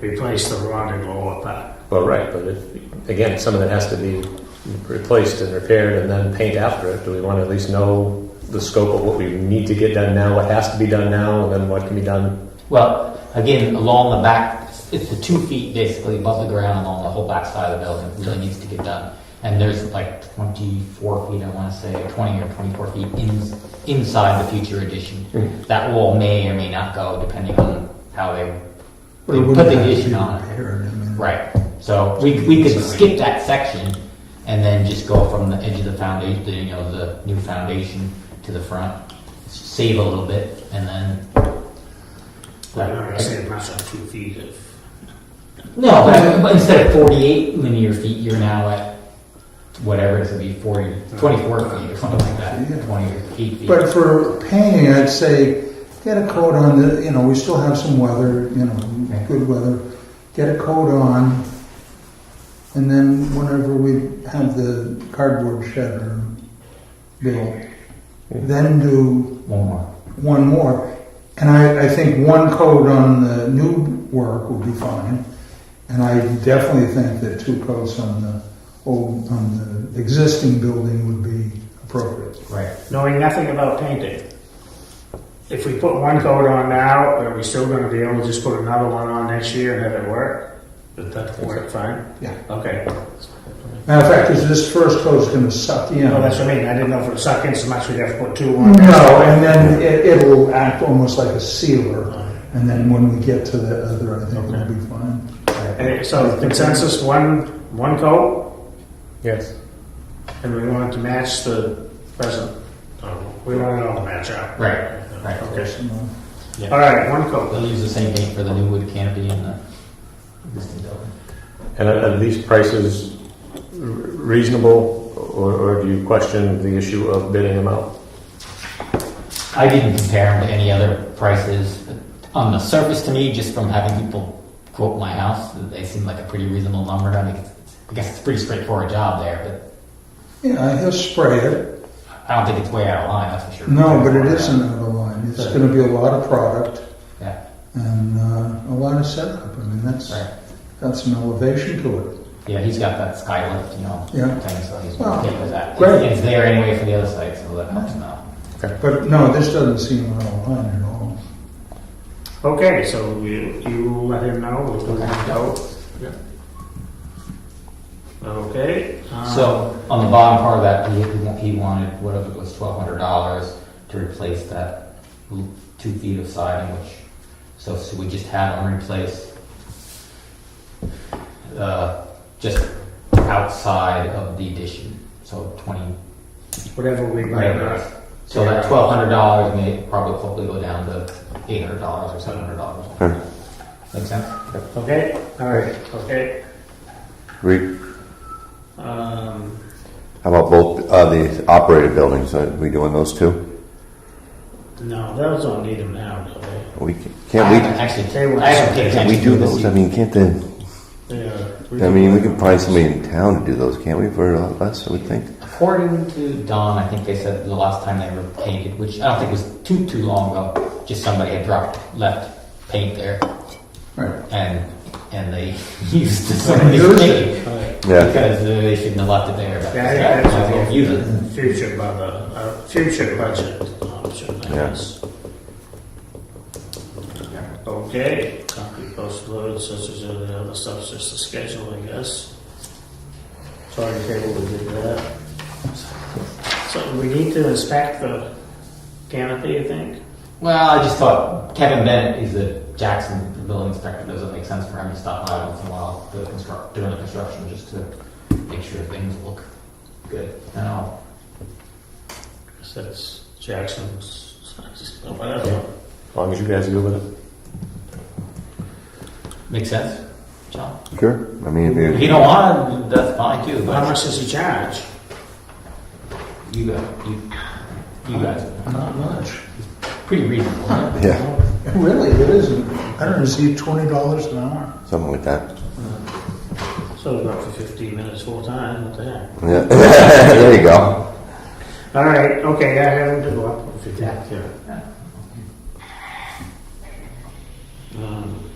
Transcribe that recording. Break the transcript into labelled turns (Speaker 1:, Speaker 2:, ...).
Speaker 1: replace the rod and lower part.
Speaker 2: Well, right, but it, again, some of that has to be replaced and repaired and then paint after it. Do we want to at least know the scope of what we need to get done now, what has to be done now, and then what can be done?
Speaker 3: Well, again, along the back, it's the two feet basically above the ground along the whole back side of the building really needs to get done. And there's like twenty-four feet, I wanna say, or twenty or twenty-four feet in, inside the future addition. That wall may or may not go depending on how they, they put the addition on. Right, so we, we could skip that section and then just go from the edge of the foundation, you know, the new foundation to the front, save a little bit, and then.
Speaker 1: But I'm not saying that's up two feet if,
Speaker 3: No, but- but instead of forty-eight linear feet, you're now at whatever it's gonna be, 40, 24 feet or something like
Speaker 4: Yeah.
Speaker 3: that, twenty or feet. feet.
Speaker 4: But for painting, I'd say, get a coat on the, you know, we still have some weather, you know,
Speaker 3: Okay.
Speaker 4: good weather. Get a coat on, and then whenever we have the cardboard shed or built, then do
Speaker 3: One more,
Speaker 4: one more. And I, I think one coat on the new work will be fine. And I definitely think that two coats on the old, on the existing building would be appropriate.
Speaker 3: right,
Speaker 1: knowing nothing about painting. If we put one coat on now, are we still gonna be able to just put another one on next year and have it work? Does that work fine?
Speaker 4: Yeah.
Speaker 1: Okay.
Speaker 4: Matter of fact, is this first coat's gonna suck you in?
Speaker 1: No, that's what I mean. I didn't know if it would suck in so much we'd have to put two on.
Speaker 4: No, and then it, it'll act almost like a sealer, and then when we get to the other, I think it'll be fine.
Speaker 1: And it- So consensus, one, one coat,
Speaker 2: Yes.
Speaker 1: and we want it to match the present. Oh, We want it all to match up.
Speaker 3: right, right.
Speaker 1: Okay.
Speaker 4: You know.
Speaker 1: All right, one coat.
Speaker 3: They'll use the same paint for the new wood canopy and the existing building.
Speaker 2: And are are these prices r- reasonable, or, or do you question the issue of bidding them out?
Speaker 3: I didn't compare them to any other prices. On the surface, to me, just from having people quote my house, they seem like a pretty reasonable number. I mean, I guess it's a pretty straightforward job there,
Speaker 4: Yeah, he'll spray it.
Speaker 3: but I don't think it's way out of line, that's for sure.
Speaker 4: No, but it isn't out of line. It's gonna be a lot of product
Speaker 3: Yeah,
Speaker 4: and, uh, a lot of setup. I mean, that's,
Speaker 3: right.
Speaker 4: got some elevation to it.
Speaker 3: Yeah, he's got that skylift, you know,
Speaker 4: Yeah.
Speaker 3: thing, so he's
Speaker 4: Well,
Speaker 3: okay with that.
Speaker 4: great.
Speaker 3: It's there anyway for the other side, so that helps him out.
Speaker 4: But no, this doesn't seem out of line at all.
Speaker 1: Okay, so you, you let him know we'll do one coat. Okay. um,
Speaker 3: So on the bottom part of that, he, he wanted whatever it was, twelve hundred dollars to replace that l- two feet of siding, which, so, so we just had them replace uh, just outside of the addition, so twenty,
Speaker 1: um, Whatever we buy.
Speaker 3: Right. so that twelve hundred dollars may probably hopefully go down to eight hundred dollars or seven hundred dollars. Make sense?
Speaker 1: Okay, all right, okay.
Speaker 5: Re-
Speaker 1: Um,
Speaker 5: How about both uh, the operated buildings? Are we doing those two?
Speaker 1: no, those don't need them now, do they?
Speaker 5: We ca-
Speaker 3: I
Speaker 5: can't
Speaker 3: haven't
Speaker 1: They
Speaker 3: Actually,
Speaker 1: were-
Speaker 3: I haven't paid
Speaker 5: we?
Speaker 3: attention
Speaker 5: Can we do
Speaker 3: to this
Speaker 5: those?
Speaker 3: yet.
Speaker 5: I mean, can't the?
Speaker 1: Yeah.
Speaker 5: I mean, we can find somebody in town to do those, can't we? For us, I would think.
Speaker 3: According to Don, I think they said the last time they were painted, which I don't think was too too long ago, just somebody had dropped left paint there,
Speaker 4: Right.
Speaker 3: and and they used the somebody's
Speaker 4: Used
Speaker 3: paint
Speaker 5: Yeah.
Speaker 3: because uh, they shouldn't have left it there. But
Speaker 1: Yeah, I think that's
Speaker 3: so
Speaker 1: a
Speaker 3: they'll use it.
Speaker 1: Future budget, uh, future budget option, I
Speaker 5: Yeah.
Speaker 1: guess. Okay, copy post load, such as any other stuff, just the schedule, I guess. Sorry, table, we did that. So we need to inspect the canopy, I think.
Speaker 3: Well, I just thought Kevin Bennett is a Jackson building inspector. Does it make sense for him to stop by once in a while to construct, during the construction just to make sure things look good? I know.
Speaker 1: 'Cause That's Jackson's, whatever.
Speaker 2: As long as you guys are good with it.
Speaker 3: Makes sense, John.
Speaker 5: Sure. I mean,
Speaker 3: If
Speaker 5: if
Speaker 3: you
Speaker 5: you,
Speaker 3: don't want to, that's fine too.
Speaker 1: How
Speaker 3: But
Speaker 1: much does he charge?
Speaker 3: you guys, you, you guys,
Speaker 4: Not much.
Speaker 3: pretty reasonable. huh?
Speaker 5: yeah,
Speaker 4: Really, it isn't. I don't receive twenty dollars an hour.
Speaker 5: something like that.
Speaker 1: So about for fifteen minutes full time, what the heck?
Speaker 5: Yeah. there you go.
Speaker 1: All right, okay, I have them to go up if you can, yeah. Um,